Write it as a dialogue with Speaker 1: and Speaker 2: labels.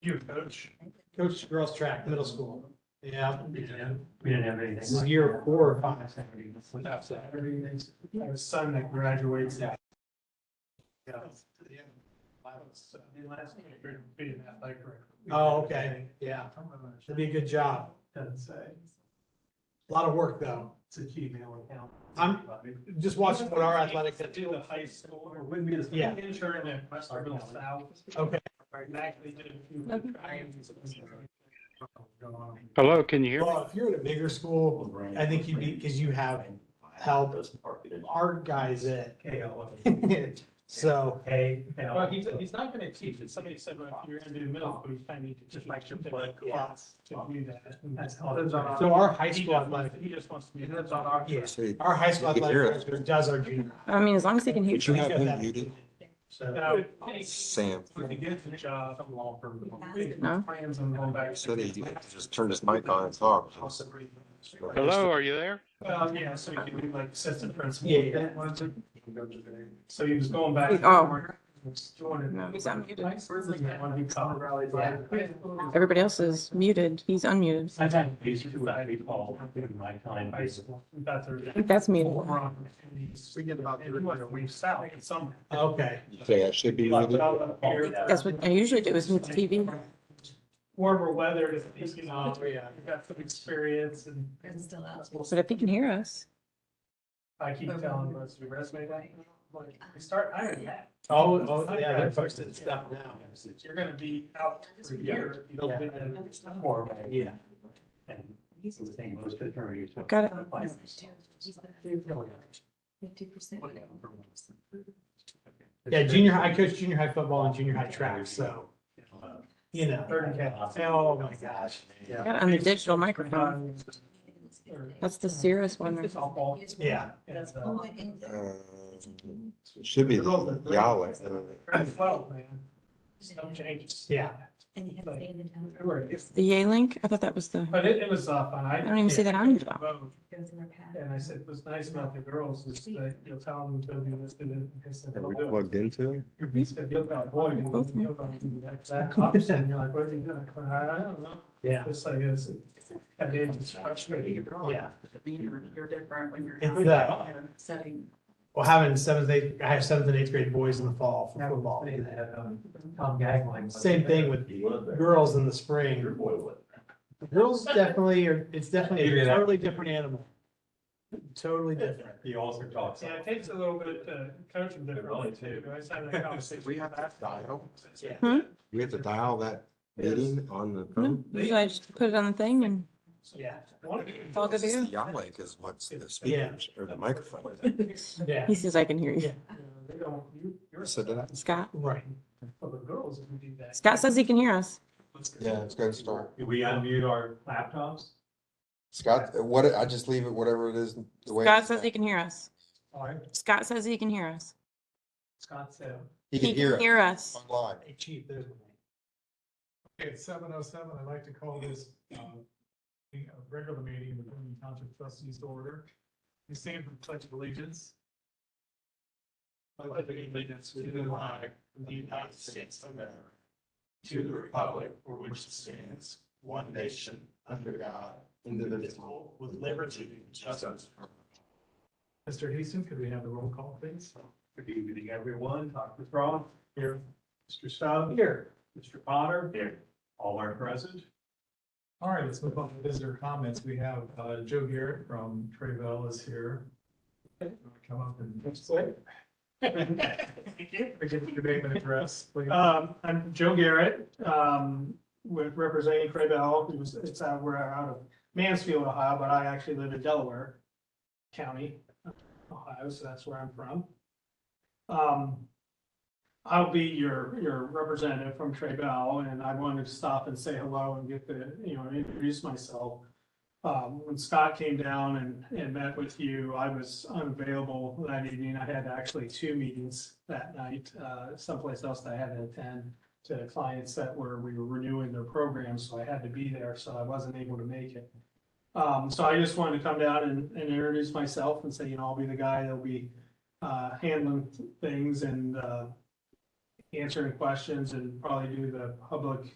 Speaker 1: You, coach.
Speaker 2: Coach girls track, middle school. Yeah.
Speaker 1: We didn't have, we didn't have anything.
Speaker 2: This is year four or five.
Speaker 1: Without that. I have a son that graduates.
Speaker 2: Yeah. Oh, okay, yeah. Should be a good job.
Speaker 1: Doesn't say.
Speaker 2: A lot of work, though.
Speaker 1: It's a Gmail account.
Speaker 2: I'm- Just watching what our athletics
Speaker 1: It's
Speaker 2: do.
Speaker 1: in the high school, or wouldn't be the
Speaker 2: Yeah.
Speaker 1: intern at Westerville South.
Speaker 2: Okay.
Speaker 1: And actually did a few trials.
Speaker 3: Hello, can you hear me?
Speaker 2: Well, if you're at a bigger school, I think you'd be, because you have help. Our guys at, so,
Speaker 1: Hey. Well, he's, he's not gonna teach it. Somebody said, well, if you're gonna do middle school, you kind of need to just like your blood clots to do that. And That's how. it is.
Speaker 2: so our high
Speaker 1: He
Speaker 2: school
Speaker 1: just
Speaker 2: athletic,
Speaker 1: wants- he just wants to be. That's on our.
Speaker 2: yes, our high school athletic director does our junior.
Speaker 4: I mean, as long as they can hear
Speaker 5: Would you
Speaker 4: you.
Speaker 5: have him muted,
Speaker 2: So,
Speaker 5: Sam?
Speaker 1: With a good job. I'm all for-
Speaker 4: No.
Speaker 1: Plans on going back.
Speaker 5: Said he just turned his mic on and talked.
Speaker 3: Hello, are you there?
Speaker 1: Well, yeah, so he could be like assistant principal.
Speaker 2: Yeah, yeah.
Speaker 1: So he was going back. and
Speaker 4: Oh.
Speaker 1: forth, joining-
Speaker 4: No, he's unmuted.
Speaker 1: Like, where's the guy when he called? Yeah.
Speaker 4: Everybody else is muted. He's unmuted.
Speaker 1: I've had these two that we call in my time. High school. That's
Speaker 4: I think that's muted.
Speaker 1: We get about. We've south and some.
Speaker 2: okay.
Speaker 5: Okay, I should be
Speaker 1: Like, uh,
Speaker 5: muted.
Speaker 1: out here.
Speaker 4: That's what I usually do is mute the TV.
Speaker 1: Warmer weather is, is, you know,
Speaker 2: Oh, yeah.
Speaker 1: I've got some experience and.
Speaker 6: It's still out.
Speaker 4: But if he can hear us,
Speaker 1: I keep telling most of your resume that, like, we start hiring that.
Speaker 2: Oh, oh, yeah, they're posting stuff now.
Speaker 1: You're gonna be out for a year. if you don't get that.
Speaker 2: Yeah.
Speaker 4: got it.
Speaker 6: Fifty percent.
Speaker 2: Yeah, junior, high- I coached junior high football and junior high track, so, you know.
Speaker 1: Third and
Speaker 2: Oh, my gosh.
Speaker 4: I got it on the digital microphone.
Speaker 1: uh,
Speaker 4: That's the serious one. right?
Speaker 1: softball.
Speaker 2: Yeah.
Speaker 1: It's,
Speaker 6: Oh,
Speaker 1: uh,
Speaker 6: my goodness.
Speaker 5: Um, Should be Yahweh.
Speaker 1: Well, man, some changes.
Speaker 2: Yeah.
Speaker 6: And you have to stay in the town.
Speaker 1: It worked.
Speaker 4: The Yay link? I thought that was the,
Speaker 1: But it, it was uh, fun.
Speaker 4: I
Speaker 1: I.
Speaker 4: don't even see that on here. though.
Speaker 1: vote,
Speaker 6: It goes in our path.
Speaker 1: And I said, what's nice about the girls is that you'll tell them to be listed in. I said,
Speaker 5: Are
Speaker 1: "Well,
Speaker 5: we
Speaker 1: do it."
Speaker 5: plugged into it?
Speaker 1: He said, "You're not going to do it. You're going to do that." That cops, and you're like, what are you doing? I said, I don't know.
Speaker 2: Yeah.
Speaker 1: It's like, it's, and then it's frustrating.
Speaker 2: Yeah.
Speaker 7: You're different when you're.
Speaker 2: It's, uh,
Speaker 7: Setting.
Speaker 2: Well, having seventh, eighth, I have seventh and eighth grade boys in the fall for football. um,
Speaker 8: um,
Speaker 2: Same thing with girls in the spring. Girls definitely are, it's definitely a totally different animal. Totally different.
Speaker 8: He also talks.
Speaker 1: Yeah, it takes a little bit to coach them differently too. I was having a conversation.
Speaker 5: We have to dial.
Speaker 2: Yeah.
Speaker 4: Hmm?
Speaker 5: We have to dial that meeting on the phone?
Speaker 4: Usually I just put it on the thing and
Speaker 2: Yeah.
Speaker 4: it's all good to go.
Speaker 5: Yahweh is what's the speakers or the microphone.
Speaker 2: Yeah,
Speaker 4: He says, I can hear you.
Speaker 1: They don't, you, you're.
Speaker 5: So did I?
Speaker 4: Scott?
Speaker 2: right.
Speaker 1: For the girls, if you do that.
Speaker 4: Scott says he can hear us.
Speaker 5: Yeah, it's gonna start.
Speaker 8: Do we unmute our laptops?
Speaker 5: Scott, what, I just leave it whatever it is, the way.
Speaker 4: Scott says he can hear us.
Speaker 1: All right,
Speaker 4: Scott says he can hear us.
Speaker 1: Scott said.
Speaker 5: He can hear it
Speaker 4: Hear us.
Speaker 5: online.
Speaker 2: Hey, chief, there's one.
Speaker 8: It's seven oh seven. I'd like to call this um, a regular meeting of the Boone Township Trustees to order. We stand for the pledge of allegiance. I pledge allegiance to the flag of the United States of America, to the republic for which it stands, one nation, under God, indivisible, with liberty and justice. Mr. Houston, could we have the roll call, please? Good evening, everyone. Dr. Thron. Here. Mr. Stout. Here. Mr. Potter. Here. All are present. All right, let's move on to visitor comments. We have uh, Joe Garrett from Travel is here. Come up and
Speaker 1: Wait.
Speaker 8: give your name and address. please.
Speaker 1: Um, I'm Joe Garrett, um, with representing Crabell, who's, it's, uh, we're out of Mansfield, Ohio, but I actually live in Delaware County, Ohio, so that's where I'm from. Um, I'll be your, your representative from Traybell, and I wanted to stop and say hello and get the, you know, introduce myself. Um, when Scott came down and, and met with you, I was unavailable that evening. I had actually two meetings that night, uh, someplace else that I had to attend to clients that were, we were renewing their programs, so I had to be there, so I wasn't able to make it. Um, so I just wanted to come down and, and introduce myself and say, you know, I'll be the guy that'll be, uh, handling things and, uh, answering questions and probably do the public